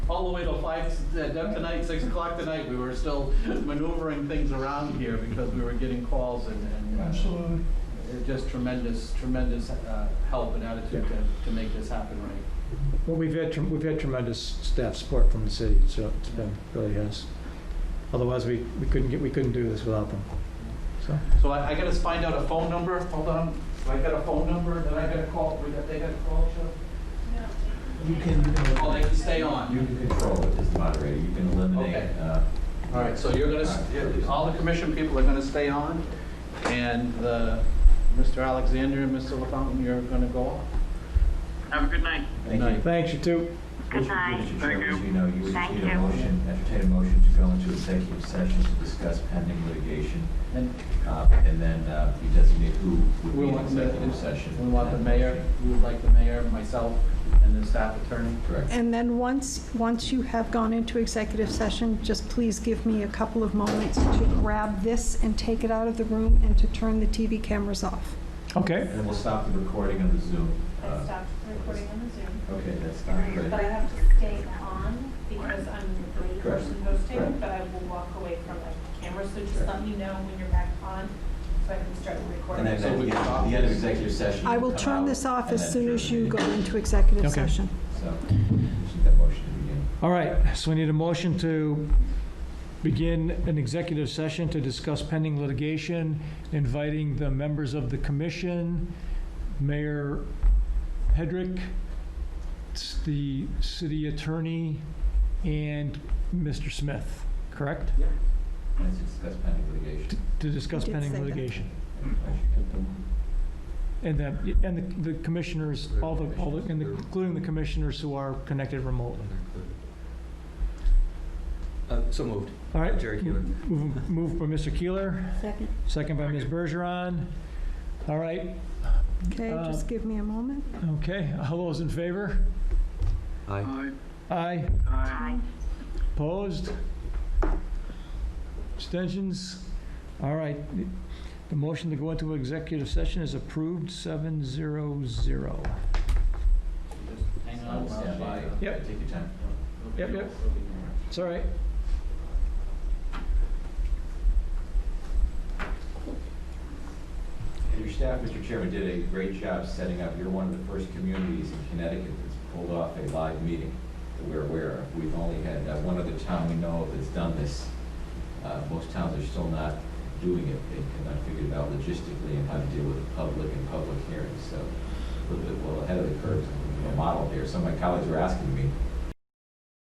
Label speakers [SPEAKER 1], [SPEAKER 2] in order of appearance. [SPEAKER 1] all the way till five, uh, tonight, six o'clock tonight, we were still maneuvering things around here because we were getting calls and, and. uh,
[SPEAKER 2] Absolutely.
[SPEAKER 1] it- Just tremendous, tremendous, uh, help and attitude to, to make this happen right.
[SPEAKER 3] Well, we've had, trem- we've had tremendous staff support from the city, so it's been, really has. Otherwise, we, we couldn't get, we couldn't do this without them, so.
[SPEAKER 1] So I, I gotta find out a phone number, hold on, I got a phone number, then I gotta call, we got, they gotta call Chuck?
[SPEAKER 2] You can, uh,
[SPEAKER 1] Oh, they can stay on.
[SPEAKER 4] You can control it as the moderator, you can eliminate.
[SPEAKER 1] Okay.
[SPEAKER 4] uh,
[SPEAKER 1] All right, so you're gonna, s- you're- all the commission people are gonna stay on, and the, Mr. Alexander and Mr. LaFountain, you're gonna go off?
[SPEAKER 5] Have a good night.
[SPEAKER 4] Thank
[SPEAKER 1] Night.
[SPEAKER 4] you.
[SPEAKER 3] Thanks, you too.
[SPEAKER 5] Good night.
[SPEAKER 4] Mr.
[SPEAKER 5] Thank
[SPEAKER 4] Chairman,
[SPEAKER 5] you.
[SPEAKER 4] as you know, you would
[SPEAKER 5] Thank
[SPEAKER 4] need a
[SPEAKER 5] you.
[SPEAKER 4] motion, entertain a motion to go into executive session to discuss pending litigation.
[SPEAKER 1] And
[SPEAKER 4] uh, And then uh, you designate who would
[SPEAKER 1] we
[SPEAKER 4] be in
[SPEAKER 1] want the,
[SPEAKER 4] executive session.
[SPEAKER 1] we want the mayor, we would like the mayor, myself, and the staff attorney.
[SPEAKER 4] Correct.
[SPEAKER 6] And then once, once you have gone into executive session, just please give me a couple of moments to grab this and take it out of the room and to turn the TV cameras off.
[SPEAKER 3] Okay.
[SPEAKER 4] And we'll stop the recording on the Zoom.
[SPEAKER 7] I
[SPEAKER 4] uh,
[SPEAKER 7] stopped recording on the Zoom,
[SPEAKER 4] Okay, that's not
[SPEAKER 7] but I
[SPEAKER 4] great.
[SPEAKER 7] have to stay on because I'm the third
[SPEAKER 4] Correct.
[SPEAKER 7] person hosting,
[SPEAKER 4] Correct.
[SPEAKER 7] but I will walk away from the camera, so just let me know when you're back on, so I can start the
[SPEAKER 4] And
[SPEAKER 7] recording.
[SPEAKER 4] then at the
[SPEAKER 1] So we
[SPEAKER 4] end
[SPEAKER 1] can
[SPEAKER 4] at
[SPEAKER 1] stop
[SPEAKER 4] the end of
[SPEAKER 1] this.
[SPEAKER 4] executive session.
[SPEAKER 6] I
[SPEAKER 4] you
[SPEAKER 6] will
[SPEAKER 4] come
[SPEAKER 6] turn
[SPEAKER 4] out
[SPEAKER 6] this off
[SPEAKER 4] and
[SPEAKER 6] as
[SPEAKER 4] then
[SPEAKER 6] soon
[SPEAKER 4] adjourn
[SPEAKER 6] as
[SPEAKER 4] the
[SPEAKER 6] you go
[SPEAKER 4] meeting.
[SPEAKER 6] into executive
[SPEAKER 3] Okay.
[SPEAKER 6] session.
[SPEAKER 4] So, just need that motion to begin.
[SPEAKER 3] All right, so we need a motion to begin an executive session to discuss pending litigation, inviting the members of the commission, Mayor Hedrick, s- the city attorney, and Mr. Smith, correct?
[SPEAKER 4] Let's discuss pending litigation.
[SPEAKER 3] To discuss
[SPEAKER 6] I did say
[SPEAKER 3] pending
[SPEAKER 6] that.
[SPEAKER 3] litigation. And the, and the the commissioners, all the, all the, and the- including the commissioners who are connected remotely.
[SPEAKER 8] Uh, So moved.
[SPEAKER 3] All right.
[SPEAKER 8] Jerry Keeler.
[SPEAKER 3] Move move by Mr. Keeler,
[SPEAKER 6] Second.
[SPEAKER 3] second by Ms. Bergeron. All right,
[SPEAKER 6] Okay, just give me a moment.
[SPEAKER 3] okay, all those in favor?
[SPEAKER 8] Aye.
[SPEAKER 3] Aye,
[SPEAKER 5] Aye.
[SPEAKER 3] opposed? Abstentions? All right, the motion to go into executive session is approved, seven zero zero.
[SPEAKER 1] Just Hang on, while
[SPEAKER 4] Stand by.
[SPEAKER 1] she-
[SPEAKER 3] Yep.
[SPEAKER 4] Take your time.
[SPEAKER 3] Yep, yep. It's all right.
[SPEAKER 4] And your staff, Mr. Chairman, did a great job setting up, you're one of the first communities in Connecticut that's pulled off a live meeting that we're aware of. We've only had uh, one other town we know of that's done this. Uh, Most towns are still not doing it, they cannot figure it out logistically and how to deal with the public and public hearings, so a little bit well ahead of the curve, a model there. Some of my colleagues were asking me,